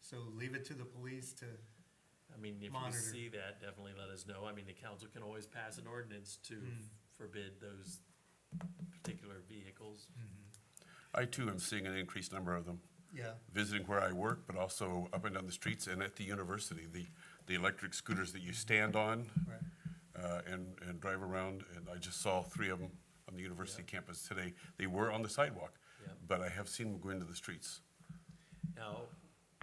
So leave it to the police to, I mean, if you Monitor. see that, definitely let us know. I mean, the council can always pass an ordinance to Mm. forbid those particular vehicles. I too am seeing an increased number of them, yeah, visiting where I work, but also up and down the streets and at the university. The, the electric scooters that you stand on right, uh, and, and drive around, and I just saw three of them on the university campus today. They were on the sidewalk, Yeah. but I have seen them go into the streets. Now,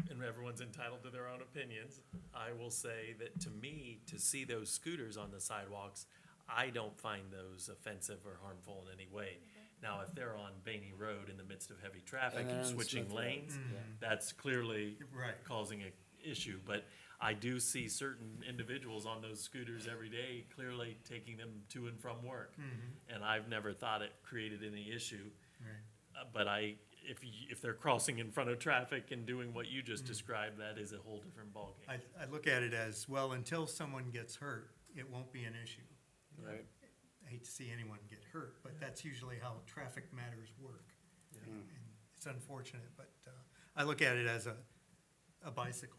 and everyone's entitled to their own opinions. I will say that to me, to see those scooters on the sidewalks, I don't find those offensive or harmful in any way. Now, if they're on Bainey Road in the midst of heavy traffic And they're and on switching Smith Road. lanes, that's clearly Right. causing an issue. But I do see certain individuals on those scooters every day, clearly taking them to and from work. Mm-hmm. And I've never thought it created any issue. right. Uh, But I, if, y- if they're crossing in front of traffic and doing what you just described, that is a whole different ballgame. Mm. I, I look at it as, well, until someone gets hurt, it won't be an issue. Right. I hate to see anyone get hurt, but that's usually how traffic matters work. And It's unfortunate, but, uh, I look at it as a, a bicycle.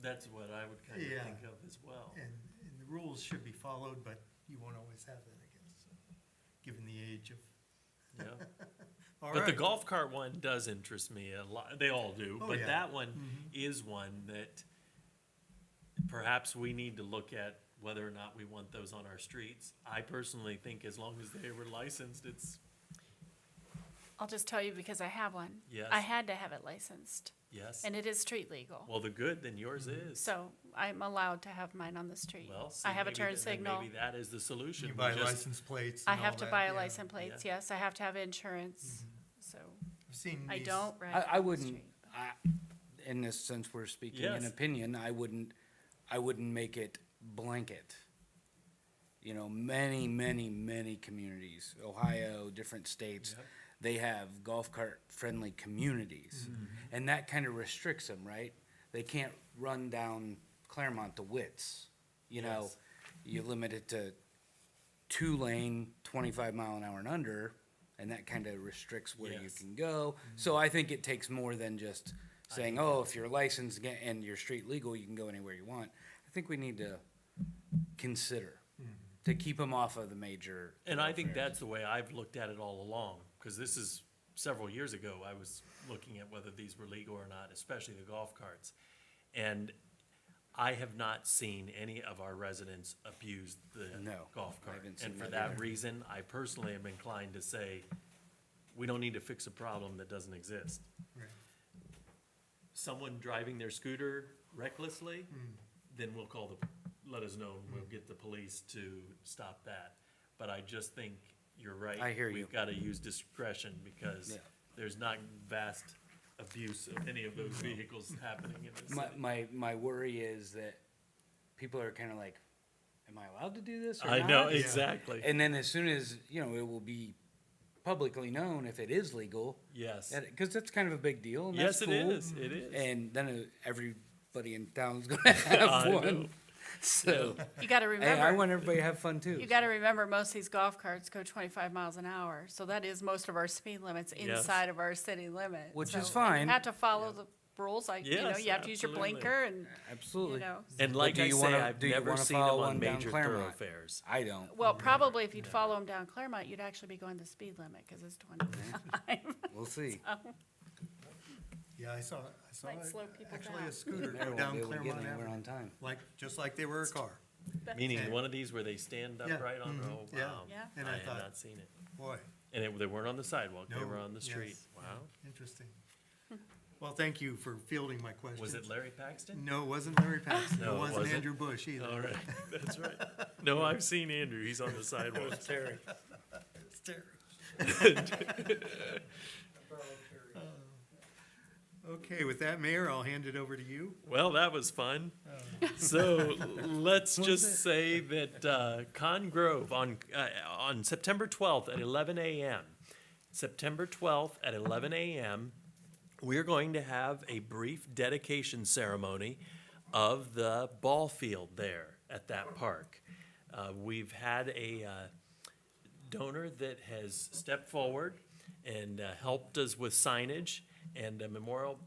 That's what I would kind of Yeah. think of as well. And, and the rules should be followed, but you won't always have that, I guess, given the age of. Yeah. All But the right. golf cart one does interest me a lot. They all do, Oh, but yeah. Mm-hmm. that one is one that perhaps we need to look at whether or not we want those on our streets. I personally think as long as they were licensed, it's I'll just tell you because I have one. Yes. I had to have it licensed, yes. and it is street legal. Well, the good, then yours Mm-hmm. is. So I'm allowed to have mine on the street. Well, see, I have a maybe turn th- then signal. Maybe that is the solution. You We buy just- license plates I and all have to that, buy yeah. a license plate, Yeah. Mm-hmm. yes, I have to have insurance, so I've seen I these- don't ride. I, I on the wouldn't, street. I, in this sense, we're speaking Yes. an opinion, I wouldn't, I wouldn't make it blanket. You know, many, many, many communities, Ohio, different states, they have golf cart friendly communities. Mm-hmm. And that kind of restricts them, right? They can't run down Claremont to Wits, you know? Yes. You limit it to two lane, twenty-five mile an hour and under, and that kind of restricts where you Yes. Mm-hmm. can go. So I think it takes more than just saying, oh, if you're licensed ga- and you're street legal, you can go anywhere you want. I think we need to consider to keep them off of the major. And I think thoroughfares. that's the way I've looked at it all along, because this is several years ago, I was looking at whether these were legal or not, especially the golf carts. And I have not seen any of our residents abuse the No, golf I cart. haven't And seen for that that reason, I personally am inclined to say, we don't need to fix a problem that doesn't exist. Right. Someone driving their scooter recklessly, Hmm. then we'll call the, let us know, and we'll get the police to stop that. But I just think you're right. I hear you. We've gotta use discretion because Yeah. there's not vast abuse of any of those vehicles happening in this My, city. my, my worry is that people are kind of like, am I allowed to do this or I not?" know, exactly. And then as soon as, you know, it will be publicly known if it is legal, Yes. because that's kind of a big deal. And Yes, that's it cool. is. It is. And then uh, everybody in town's gonna have I know. one. So, You gotta hey, I remember, want everybody to have fun too. you gotta remember, most of these golf carts go twenty-five miles an hour, so that is most of our speed limits Yes. inside of our city limits. Which is You fine. have to follow the rules, like, you know, Yes, you have to use your absolutely. blinker and, you Absolutely. know. And But like do I you say, wanna- I've do you never wanna seen them follow on one down major Claremont? thoroughfares. I don't. Well, probably if you'd follow them down Claremont, you'd actually be going the speed limit, cause it's twenty-five. We'll see. Yeah, I saw, I saw, Might it. slow people actually down. a scooter go Never will be down able to get Claremont anywhere on Avenue, time. like, just like they were a car. Meaning And- one of these where they stand Yeah, upright on, Mm-hmm. mhm, oh, yeah. wow. Yeah. I And I have thought- not seen it. Boy, And it, they weren't on the sidewalk, they No, were on the street. yes. Wow. interesting. Well, thank you for fielding my question. Was it Larry Paxton? No, it wasn't Larry Paxton. No, It it wasn't wasn't. Andrew Bush All either. right, that's right. No, I've seen Andrew, he's on the sidewalk. Terry. It's Terry. Okay, with that, Mayor, I'll hand it over to you. Well, that was fun. So let's just say that uh, Con Grove on, uh, on September 12th at 11 a.m., September 12th at 11 a.m., we're going to have a brief dedication ceremony of the ball field there at that park. Uh, We've had a, uh, donor that has stepped forward and uh, helped us with signage and a memorial